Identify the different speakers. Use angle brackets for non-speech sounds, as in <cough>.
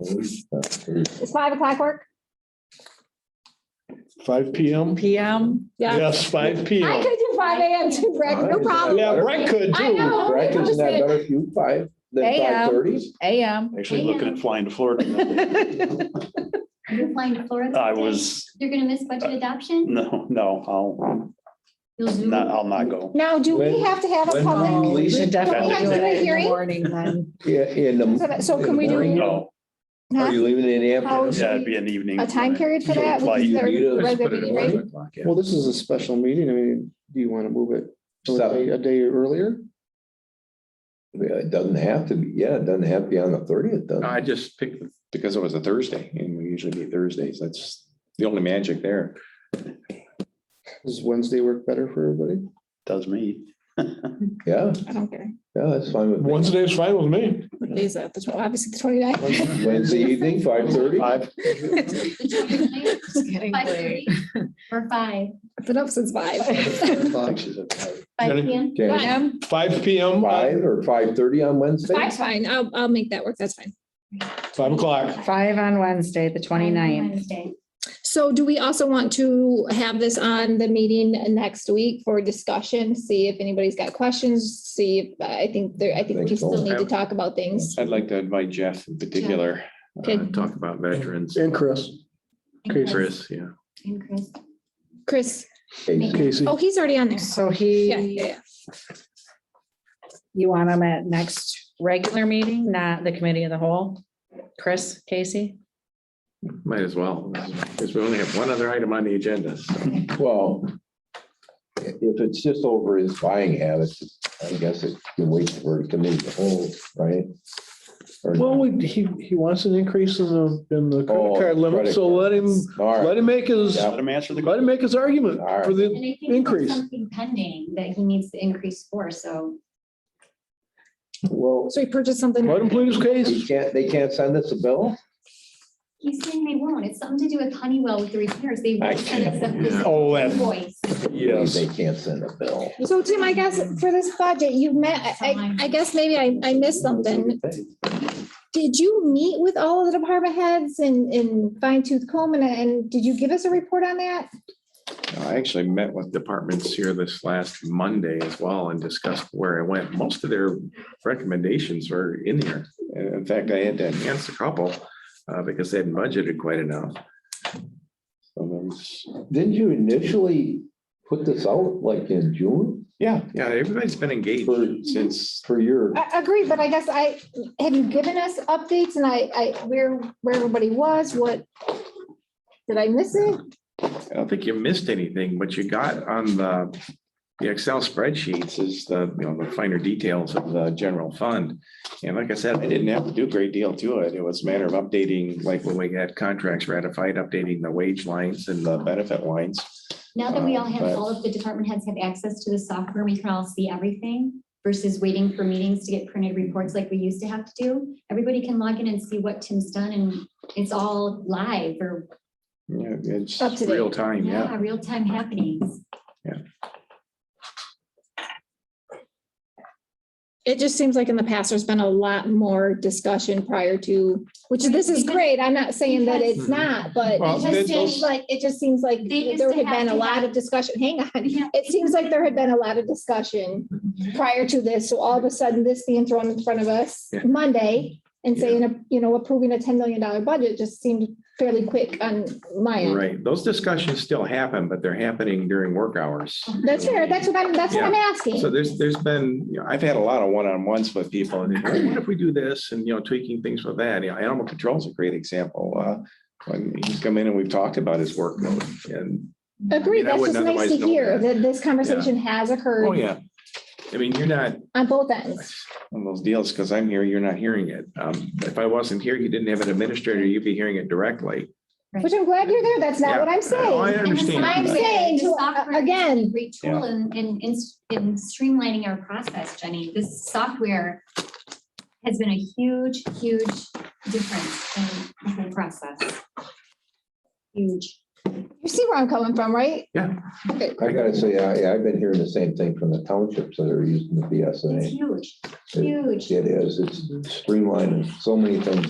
Speaker 1: Does five o'clock work?
Speaker 2: Five P M?
Speaker 3: PM? Yeah,
Speaker 2: Yes, five P
Speaker 1: I
Speaker 2: M.
Speaker 1: could do five AM too, Rick, no problem.
Speaker 2: Yeah, Brett could
Speaker 1: I
Speaker 2: too.
Speaker 1: know.
Speaker 4: Correct,
Speaker 1: I'm
Speaker 4: isn't
Speaker 1: just
Speaker 4: that
Speaker 1: saying-
Speaker 4: better if you five than
Speaker 3: Hey, um,
Speaker 4: five thirty?
Speaker 5: <laughs>
Speaker 3: AM.
Speaker 6: Actually looking at flying to Florida.
Speaker 5: You're flying to Florida.
Speaker 6: I
Speaker 5: today?
Speaker 6: was,
Speaker 5: You're gonna miss budget adoption?
Speaker 6: no, no, I'll
Speaker 5: You'll zoom.
Speaker 6: not, I'll not go.
Speaker 1: Now, do we
Speaker 4: When-
Speaker 1: have to have a
Speaker 4: when-
Speaker 3: Oh,
Speaker 1: public?
Speaker 3: we should definitely
Speaker 6: Can we
Speaker 3: do
Speaker 1: have a
Speaker 3: it in
Speaker 1: hearing?
Speaker 3: the morning then.
Speaker 4: Yeah, in the.
Speaker 1: So can we do-
Speaker 4: in the morning?
Speaker 6: No,
Speaker 4: Are you leaving in the
Speaker 1: How
Speaker 4: afternoon?
Speaker 1: is-
Speaker 6: yeah, it'd be an evening.
Speaker 1: A time period for that?
Speaker 6: Like,
Speaker 1: Because
Speaker 4: you
Speaker 1: they're
Speaker 4: need to
Speaker 1: regular
Speaker 7: Put it
Speaker 1: meeting,
Speaker 7: at
Speaker 1: right?
Speaker 7: eleven o'clock, yeah.
Speaker 8: Well, this is a special meeting. I mean, do you want to move it to a day-
Speaker 4: Seven.
Speaker 8: a day earlier?
Speaker 4: Yeah, It doesn't have to be, yeah, it doesn't have to be on the thirtieth, does it?
Speaker 7: I just picked because it was a Thursday and we usually meet Thursdays. That's the only magic there.
Speaker 8: Does Wednesday work better for everybody?
Speaker 6: Does me.
Speaker 4: Yeah,
Speaker 1: I don't care.
Speaker 4: yeah, that's fine with me.
Speaker 2: Wednesday is fine with me.
Speaker 1: What day is that? The tw- Obviously, the twenty-ninth.
Speaker 4: Wednesday evening, five thirty?
Speaker 2: Five.
Speaker 5: Five
Speaker 3: It's getting late.
Speaker 5: thirty or five,
Speaker 1: I've been up
Speaker 4: <laughs>
Speaker 1: since five. um,
Speaker 5: five
Speaker 2: Jenny?
Speaker 5: PM.
Speaker 4: Okay,
Speaker 3: AM?
Speaker 2: Five P M,
Speaker 4: five or five thirty on Wednesday?
Speaker 1: Five's fine. I'll, I'll make that work. That's fine.
Speaker 2: five o'clock.
Speaker 9: Five on Wednesday, the 29th.
Speaker 5: Wednesday.
Speaker 1: So do we also want to have this on the meeting next week for discussion? See if anybody's got questions, see if, I think there, I think we
Speaker 4: Think so.
Speaker 1: still need to talk about things.
Speaker 7: I'd like to invite Jeff in particular, uh,
Speaker 1: Okay.
Speaker 7: talk about veterans.
Speaker 2: And Chris.
Speaker 5: And
Speaker 7: Chris, yeah.
Speaker 5: And Chris.
Speaker 1: Chris,
Speaker 4: Casey.
Speaker 2: Casey.
Speaker 1: oh, he's already on there.
Speaker 9: So
Speaker 1: Yeah,
Speaker 9: he,
Speaker 1: yeah, yeah.
Speaker 9: you want him at next regular meeting, not the committee of the whole? Chris, Casey?
Speaker 7: Might as well, because we only have one other item on the agenda. so.
Speaker 4: Well, i- if it's just over his buying habits, I guess it can wait for it to meet the whole, right? Or
Speaker 2: Well,
Speaker 4: not?
Speaker 2: we- he, he wants an increase in the, in the
Speaker 4: Oh,
Speaker 2: credit card limit,
Speaker 4: credit
Speaker 2: so let him,
Speaker 4: All right.
Speaker 2: let him make his,
Speaker 4: Yeah.
Speaker 2: let
Speaker 6: Let him answer the.
Speaker 2: him make his argument
Speaker 4: All right.
Speaker 2: for
Speaker 5: And
Speaker 2: the,
Speaker 5: I think there's
Speaker 2: Increase.
Speaker 5: something pending that he needs to increase for, so.
Speaker 4: Well,
Speaker 1: So he purchased something.
Speaker 2: let him plead his
Speaker 4: he
Speaker 2: case.
Speaker 4: can't, they can't send us a bill?
Speaker 5: He's saying they won't. It's something to do with Honeywell with the repairs. They
Speaker 4: I
Speaker 5: won't send us
Speaker 4: can't-
Speaker 5: the
Speaker 2: Oh,
Speaker 5: the
Speaker 2: that,
Speaker 5: invoice.
Speaker 4: They can't send a bill.
Speaker 1: So Tim, I guess for this budget, you met, I, I guess maybe I, I missed something. Did you meet with all of the department heads and, and fine tooth comb and, and did you give us a report on that?
Speaker 7: I actually met with departments here this last Monday as well and discussed where I went. Most of their recommendations were in here. And in fact, I had to enhance a couple uh, because they hadn't budgeted quite enough. So there was-
Speaker 4: Didn't you initially put this out like in June
Speaker 7: Yeah, yeah, everybody's been engaged since.
Speaker 4: for your?
Speaker 1: I agree, but I guess I, have you given us updates and I, I, where, where everybody was, what? Did I miss it?
Speaker 7: I don't think you missed anything. What you got on the, the Excel spreadsheets is the, you know, the finer details of the general fund. And like I said, I didn't have to do a great deal to it. It was a matter of updating, like when we had contracts ratified, updating the wage lines and the benefit lines.
Speaker 5: Now that we all have,
Speaker 7: Uh, but-
Speaker 5: all of the department heads have access to the software, we can all see everything versus waiting for meetings to get printed reports like we used to have to do. Everybody can log in and see what Tim's done and it's all live or,
Speaker 7: Yeah, it's
Speaker 1: Up to date.
Speaker 7: real time, yeah.
Speaker 5: yeah, real time happenings.
Speaker 1: It just seems like in the past, there's been a lot more discussion prior to, which this is great. I'm not saying that it's not, but
Speaker 2: Well,
Speaker 1: it just
Speaker 2: then
Speaker 1: seems
Speaker 2: those-
Speaker 1: like, it just seems like
Speaker 5: They used
Speaker 1: there
Speaker 5: to
Speaker 1: had
Speaker 5: have
Speaker 1: been a
Speaker 5: to
Speaker 1: lot
Speaker 5: have-
Speaker 1: of discussion. Hang on.
Speaker 5: Yeah.
Speaker 1: It seems like there had been a lot of discussion
Speaker 7: Mm-hmm.
Speaker 1: prior to this. So all of a sudden, this being thrown in front of us
Speaker 7: Yeah.
Speaker 1: Monday and
Speaker 7: Yeah.
Speaker 1: saying, you know, approving a ten million dollar budget just seemed fairly quick on my end.
Speaker 7: Right. Those discussions still happen, but they're happening during work hours.
Speaker 1: That's fair. That's what I'm, that's what I'm asking.
Speaker 7: So there's, there's been, you know, I've had a lot of one-on-ones with people and they're, what if we do this and, you know, tweaking things with that, you know, animal control is a great example. Uh, When he's come in and we've talked about his workload and,
Speaker 1: Agreed.
Speaker 7: mean,
Speaker 1: That's
Speaker 7: I
Speaker 1: just nice
Speaker 7: wouldn't
Speaker 1: to
Speaker 7: otherwise know
Speaker 1: hear
Speaker 7: that.
Speaker 1: that this conversation has
Speaker 7: oh
Speaker 1: occurred
Speaker 7: yeah. I mean, you're not
Speaker 1: on both ends.
Speaker 7: on those deals because I'm here, you're not hearing it. Um, If I wasn't here, you didn't have an administrator, you'd be hearing it directly.
Speaker 1: Which I'm glad you're there. That's not what I'm
Speaker 7: Oh, I
Speaker 1: saying.
Speaker 7: understand.
Speaker 1: I'm saying,
Speaker 5: The
Speaker 1: to- uh,
Speaker 5: software is a
Speaker 1: again-
Speaker 5: Great tool in, in, in s- in streamlining our process, Jenny. This software has been a huge, huge difference in the process. Huge.
Speaker 1: You see where I'm coming from, right?
Speaker 7: Yeah.
Speaker 1: Okay.
Speaker 4: I gotta say, I, I've been hearing the same thing from the townships that are using the
Speaker 5: It's
Speaker 4: BSNA.
Speaker 5: huge, huge.
Speaker 4: It is, it's streamlining so many things